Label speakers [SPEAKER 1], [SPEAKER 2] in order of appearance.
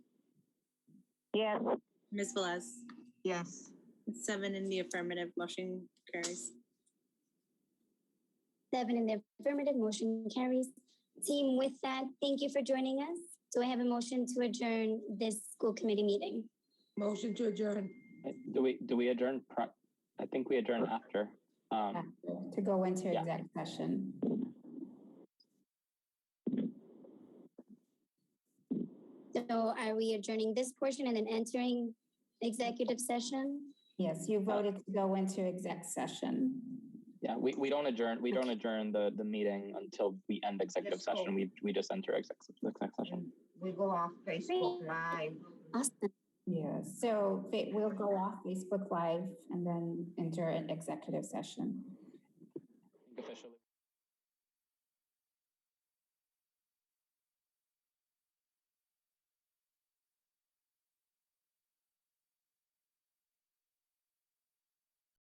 [SPEAKER 1] Yes.
[SPEAKER 2] Ms. Velez,
[SPEAKER 3] Yes.
[SPEAKER 2] seven in the affirmative, motion carries.
[SPEAKER 4] Seven in the affirmative, motion carries. Team, with that, thank you for joining us. Do I have a motion to adjourn this school committee meeting?
[SPEAKER 3] Motion to adjourn.
[SPEAKER 5] Do we, do we adjourn? pri- I think we adjourn after. Um,
[SPEAKER 6] to go into
[SPEAKER 5] Yeah.
[SPEAKER 6] exec session.
[SPEAKER 4] So are we adjourning this portion and then entering executive session?
[SPEAKER 6] Yes, you voted to go into exec session.
[SPEAKER 5] yeah, we, we don't adjourn, we don't adjourn the, the meeting until we end executive
[SPEAKER 3] Yes, cool.
[SPEAKER 5] session. We, we just enter exec, exec session.
[SPEAKER 3] We go off Facebook Live.
[SPEAKER 4] Awesome.
[SPEAKER 6] Yeah, so fa- we'll go off Facebook Live and then enter an executive session.
[SPEAKER 5] Officially.